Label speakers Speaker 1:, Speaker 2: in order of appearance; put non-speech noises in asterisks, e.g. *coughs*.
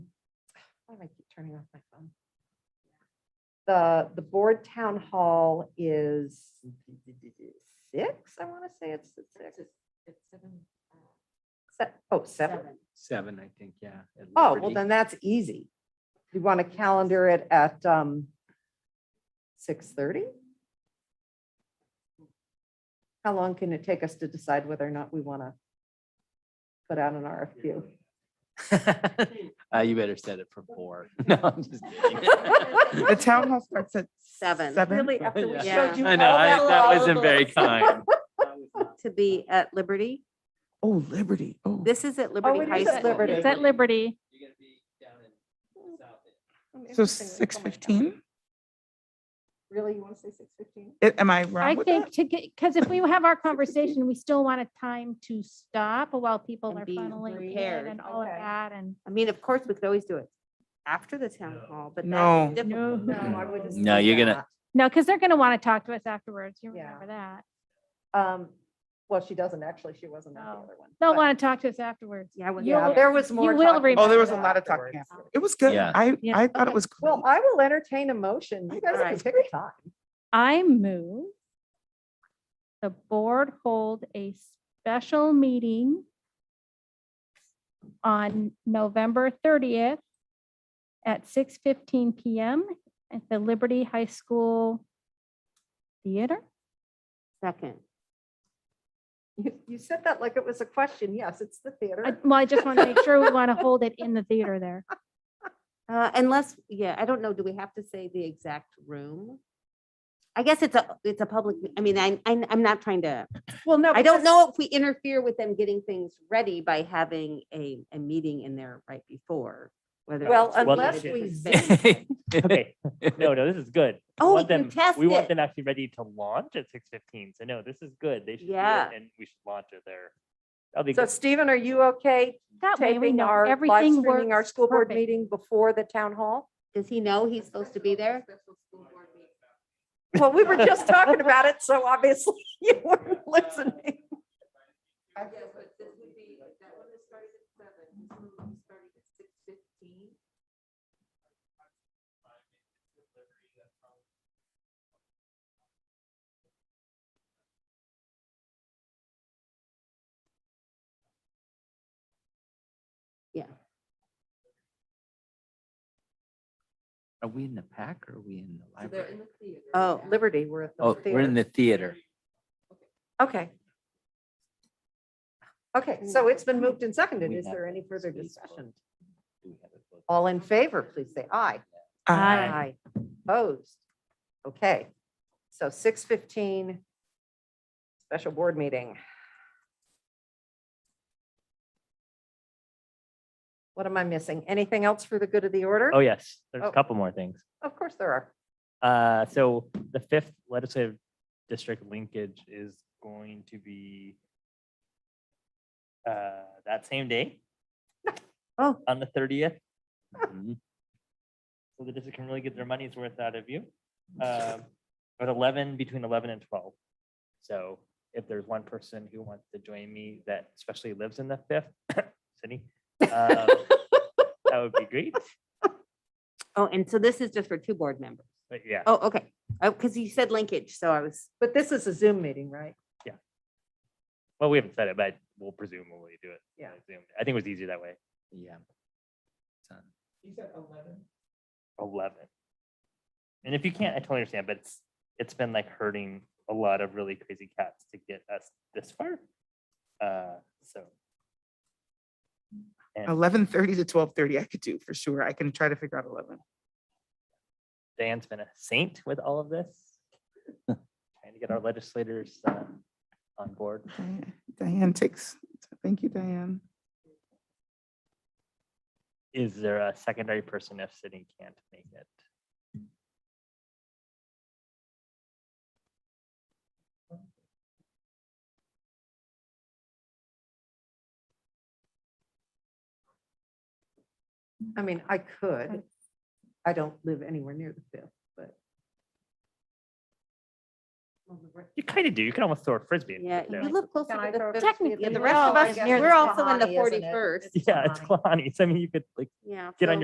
Speaker 1: Why do I keep turning off my phone? The, the board town hall is six, I want to say it's at six.
Speaker 2: It's seven, uh,
Speaker 1: Se- Oh, seven.
Speaker 2: seven.
Speaker 3: Seven, I think, yeah. at
Speaker 1: Oh, well,
Speaker 3: Liberty.
Speaker 1: then that's easy. You want to calendar it at um six thirty? How long can it take us to decide whether or not we want to put out an RFQ?
Speaker 3: *laughs* Uh, you better set it for four. *laughs* No, I'm just kidding.
Speaker 1: *laughs*
Speaker 4: The town hall starts at
Speaker 5: Seven,
Speaker 3: *laughs*
Speaker 4: seven.
Speaker 3: after we
Speaker 5: Yeah. showed
Speaker 3: I know, I- that wasn't
Speaker 1: *laughs*
Speaker 3: very kind.
Speaker 5: to be at Liberty.
Speaker 4: Oh, Liberty. Oh,
Speaker 5: This is at
Speaker 1: it
Speaker 5: Liberty High
Speaker 1: is at
Speaker 5: School.
Speaker 1: Liberty.
Speaker 6: It's at Liberty.
Speaker 4: so six fifteen?
Speaker 1: Really, you want to say six fifteen?
Speaker 4: Am I
Speaker 6: I
Speaker 4: wrong with
Speaker 6: think
Speaker 4: that?
Speaker 6: to get, because if we have our conversation, we still want a time to stop while people
Speaker 5: And
Speaker 6: are
Speaker 5: be
Speaker 6: funneling in
Speaker 5: prepared.
Speaker 6: and all of
Speaker 1: Okay.
Speaker 6: that and.
Speaker 5: I mean, of course, we could always do it after the town hall, but
Speaker 4: No.
Speaker 5: that's difficult.
Speaker 1: No, I wouldn't.
Speaker 3: No,
Speaker 1: say
Speaker 3: you're gonna-
Speaker 6: No, because they're going to want to talk to us afterwards. You
Speaker 1: Yeah.
Speaker 6: remember that.
Speaker 1: that. Um, well, she doesn't actually. She wasn't on the
Speaker 6: No.
Speaker 1: other one.
Speaker 6: They'll
Speaker 1: but-
Speaker 6: want to talk to us afterwards.
Speaker 5: Yeah, I wouldn't-
Speaker 1: Yeah,
Speaker 6: you'll-
Speaker 1: there was more.
Speaker 6: will
Speaker 1: talking
Speaker 6: remember
Speaker 4: Oh, there was a
Speaker 1: about
Speaker 4: lot of
Speaker 1: afterwards.
Speaker 4: talking. after. It was good.
Speaker 3: Yeah.
Speaker 4: I,
Speaker 6: Yeah.
Speaker 4: I thought it was great.
Speaker 1: Well, I will entertain a motion. You guys can
Speaker 5: Alright.
Speaker 1: pick a time.
Speaker 6: I move the board hold a special meeting on November thirtieth at six fifteen PM at the Liberty High School Theater.
Speaker 5: Second.
Speaker 1: You, you said that like it was a question. Yes, it's the
Speaker 6: I-
Speaker 1: theater.
Speaker 6: Uh, Well, I just want to make sure we want to hold it in the theater there.
Speaker 5: Uh, unless, yeah, I don't know, do we have to say the exact room? I guess it's a, it's a public, I mean, I'm, I'm, I'm not trying to,
Speaker 1: Well, no.
Speaker 5: I don't
Speaker 1: because-
Speaker 5: know if we interfere with them getting things ready by having a, a meeting in there right before. whether
Speaker 1: Well,
Speaker 5: it's a
Speaker 1: unless
Speaker 5: limited
Speaker 1: we
Speaker 5: space.
Speaker 1: zoom.
Speaker 7: Okay, no, no, this is good. We
Speaker 5: Oh,
Speaker 7: want
Speaker 5: you
Speaker 7: them-
Speaker 5: test
Speaker 7: We
Speaker 5: it.
Speaker 7: want them actually ready to launch at six fifteen, so no, this is good, they should do it,
Speaker 5: Yeah.
Speaker 7: and we should launch it there. That'll be
Speaker 1: So
Speaker 7: good,
Speaker 1: Stephen, are you okay
Speaker 6: That way we
Speaker 1: taping
Speaker 6: know
Speaker 1: our, live
Speaker 6: everything works.
Speaker 1: streaming our school board
Speaker 6: perfect.
Speaker 1: meeting before the town hall?
Speaker 5: Does he know he's supposed to be there?
Speaker 1: Well, we were just talking about it, so obviously *laughs* you weren't listening.
Speaker 3: Are we in the pack or are we in the library?
Speaker 5: Oh,
Speaker 1: Liberty, we're at the
Speaker 3: Oh, we're in
Speaker 1: theater.
Speaker 3: the theater.
Speaker 1: Okay. Okay, so it's been moved and seconded. Is there any further discussion? All in favor, please say aye.
Speaker 4: Uh,
Speaker 1: Aye. Opposed? Okay, so six fifteen, special board meeting. What am I missing? Anything else for the good of the order?
Speaker 7: oh, yes, there's
Speaker 1: Oh.
Speaker 7: a couple more things.
Speaker 1: Of course there are.
Speaker 7: Uh, so the fifth legislative district linkage is going to be uh, that same day.
Speaker 5: Oh.
Speaker 7: On the thirtieth,
Speaker 3: Mhm.
Speaker 7: so the district can really get their money's worth out of you. Um, At eleven, between eleven and twelve. So if there's one person who wants to join me that especially lives in the fifth *coughs* city, um, that would be great.
Speaker 5: oh, and so this is just for two board members.
Speaker 7: But yeah,
Speaker 5: Oh, okay. Oh, because you said linkage, so I was,
Speaker 1: But this is a Zoom meeting, right?
Speaker 7: well, we haven't said it, but we'll presumably do it.
Speaker 1: Yeah.
Speaker 7: by Zoom. I think it was easier that way.
Speaker 3: Yeah. Done.
Speaker 7: eleven. And if you can't, I totally understand, but it's, it's been like hurting a lot of really crazy cats to get us this far. Uh, so. And
Speaker 4: Uh, Eleven thirty to twelve thirty, I could do for sure. I can try to figure out eleven.
Speaker 7: Dan's been a saint with all of this. Trying to get our legislators uh, on board.
Speaker 4: Diane- Diane takes, thank you, Diane.
Speaker 7: Is there a secondary person if Sydney can't make it?
Speaker 1: I mean, I could. I don't live anywhere near the fifth, but.
Speaker 7: You kind of do. You can almost throw a frisbee. and
Speaker 5: yeah,
Speaker 7: put it
Speaker 5: you
Speaker 7: there.
Speaker 5: live closer to the fifth.
Speaker 6: Technically,
Speaker 5: Yeah, the
Speaker 6: we're
Speaker 5: rest
Speaker 6: all
Speaker 5: of us,
Speaker 6: near the
Speaker 5: we're also in the
Speaker 1: Kalahari, isn't it?
Speaker 5: forty-first.
Speaker 1: It's
Speaker 7: *laughs* Yeah, it's
Speaker 1: Kalahari.
Speaker 7: Kalani. So I mean, you could like
Speaker 5: Yeah.
Speaker 7: Get on
Speaker 5: so-